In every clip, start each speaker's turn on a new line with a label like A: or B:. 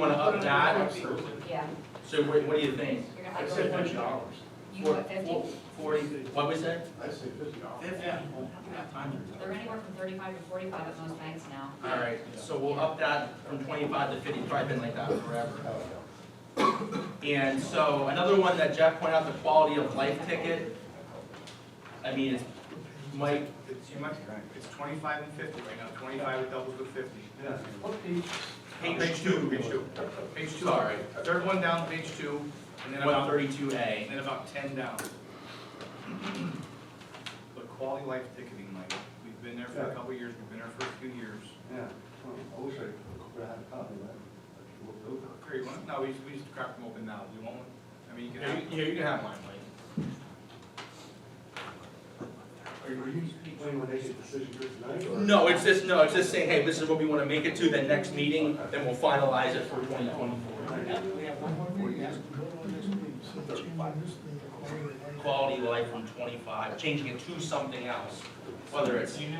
A: Want to up that?
B: Yeah,
A: So what, what do you think?
B: you're gonna
C: I'd
B: have
C: say
B: to,
C: fifty dollars.
B: you want fifty,
A: Forty, what was that?
C: I'd say fifty dollars.
A: Fifty?
B: they're anywhere from thirty-five to forty-five at most banks now.
A: All right, so we'll up that from twenty-five to fifty, probably been like that forever. And so another one that Jeff pointed out, the quality of life ticket. I mean, it's, Mike,
D: It's too much, it's twenty-five and fifty right now, twenty-five with doubles with fifty.
C: What page?
D: Page two, page two, page two.
A: sorry,
D: Third one down, page two, and then
A: one
D: about,
A: thirty-two A.
D: and then about ten down. But quality life ticketing, like, we've been there for a couple of years, we've been there for a few years.
C: Yeah. I wish I could have had a copy of that. I should look over it.
D: Here, you want, no, we just, we just cracked them open now, you want one? I mean, you can
A: Yeah,
D: have.
A: you- yeah, you can have mine, Mike.
C: Are you, are you planning when they get decision for tonight? or-
A: No, it's just, no, it's just saying, hey, this is what we want to make it to, the next meeting, then we'll finalize it for twenty twenty-four. quality of life from twenty-five, changing it to something else, whether it's thirty.
D: You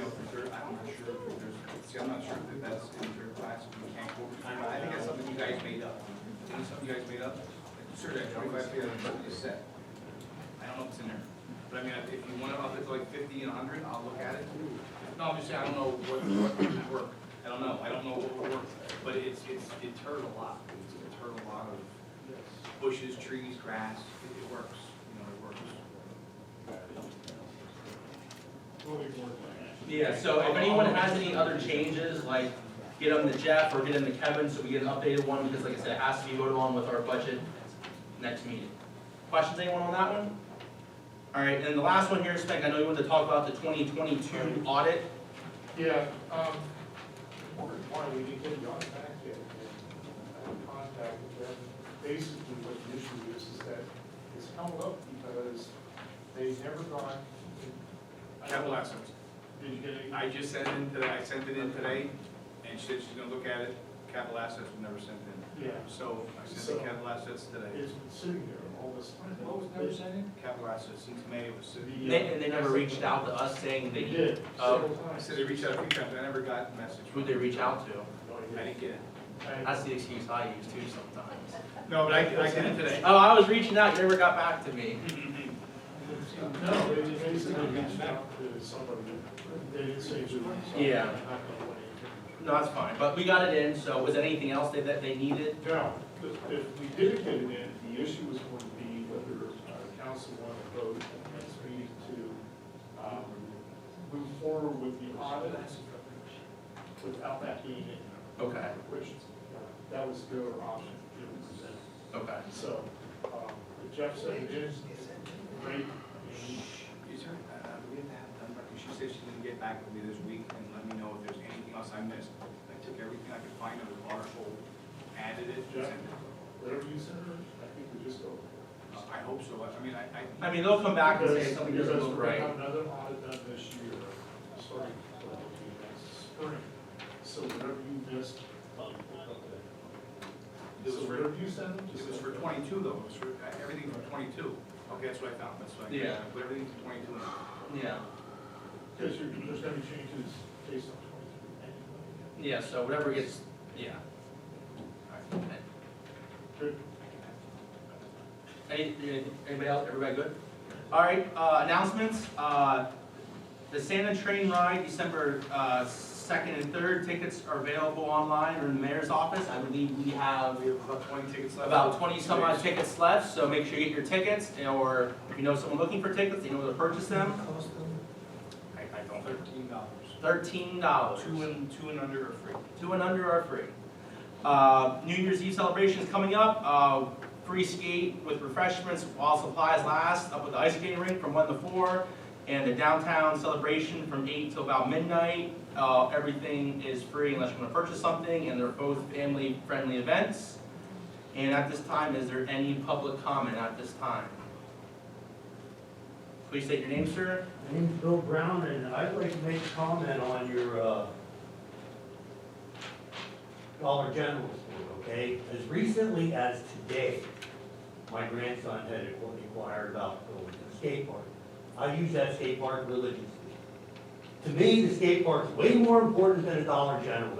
D: know, for sure, I'm not sure, if there's, see, I'm not sure if that's in third class, if we can't go over time, I think that's something you guys made up. Isn't it something you guys made up? Sure, that twenty-five feet, that's what you said. I don't know if it's in there, but I mean, if you wanna up it to like fifty and hundred, I'll look at it. No, I'm just saying, I don't know what, what would work, I don't know, I don't know what would work, but it's, it's deterred a lot, it's deterred a lot of bushes, trees, grass, it it works, you know, it works.
A: Yeah, so if anyone has any other changes, like, get them to Jeff or get them to Kevin, so we get an updated one, because like I said, it has to be voted on with our budget next meeting. Questions, anyone on that one? All right, and the last one here, Spank, I know you wanted to talk about the twenty twenty-two audit.
E: Yeah, um, wondered why we didn't get the audit back yet. I contacted them. Basically, what the issue is, is that it's held up because they never got.
D: Capital assets.
E: Did you get any?
D: I just sent it in today, I sent it in today, and she said she's gonna look at it, capital assets were never sent in.
E: Yeah,
D: So I sent the capital assets today.
E: it's been sitting there all this time.
D: sent in? Capital assets, since May it was sitting.
A: And they, and they never reached out to us saying
E: They
A: they,
E: did,
A: Oh.
E: several
D: I
E: times.
D: said they reached out a few times, I never got the message.
A: who'd they reach out to?
E: No,
D: I
E: yeah.
D: didn't get it.
A: That's the excuse I use too sometimes.
D: No, but I, I sent it today.
A: Oh, I was reaching out, you never got back to me.
E: No, they just basically reached out to somebody. They didn't say who. so
A: Yeah.
E: I'm not gonna wait.
A: No, that's fine, but we got it in, so was there anything else that, that they needed?
E: Now, if, if we did get it in, the issue is going to be whether uh, council want to vote next meeting to, um, move forward with the audit without that being in,
A: Okay,
E: which, uh, that was the other option given presented.
A: okay.
E: So, um, Jeff said it is great.
D: Is there, uh, we have to have done, because she said she's gonna get back with me this week and let me know if there's anything else I missed. I took everything I could find of the article, added it, sent it. Uh,
E: Whatever you said, I think we just go.
D: I hope so, I I mean, I, I.
A: I mean, they'll come back and say
E: Because-
A: something doesn't
E: because
A: look
E: we're gonna
A: right.
E: have Another audit done this year, starting probably next spring, so whatever you missed.
D: It was
E: So
D: for-
E: whatever you send them,
D: It
E: just.
D: was for twenty-two though, it was for, uh, everything for twenty-two. Okay, that's what I found, that's what I,
A: Yeah.
D: I put everything to twenty-two. in.
A: Yeah,
E: Because you're, there's gonna be changes based on twenty-three anyway.
A: yeah, so whatever gets, yeah.
E: Good.
A: Any, anybody else, everybody good? All right, uh, announcements, uh, the Santa train ride, December, uh, second and third, tickets are available online or in the mayor's office. I believe we have
D: We have about twenty tickets left.
A: about twenty some odd tickets left, so make sure you get your tickets, or if you know someone looking for tickets, you know where to purchase them,
D: I, I don't. Thirteen dollars.
A: thirteen dollars.
D: Two and, two and under are free.
A: Two and under are free. Uh, New Year's Eve celebrations coming up, uh, free skate with refreshments while supplies last, up at the ice skating rink from one to four, and the downtown celebration from eight till about midnight. Uh, everything is free unless you wanna purchase something, and they're both family-friendly events. And at this time, is there any public comment at this time? Please state your name, sir.
F: My name's Bill Brown, and I'd like to make a comment on your, uh, Dollar General store, okay? As recently as today, my grandson had inquired about going to the skate park. I use that skate park religiously. To me, the skate park's way more important than a Dollar General.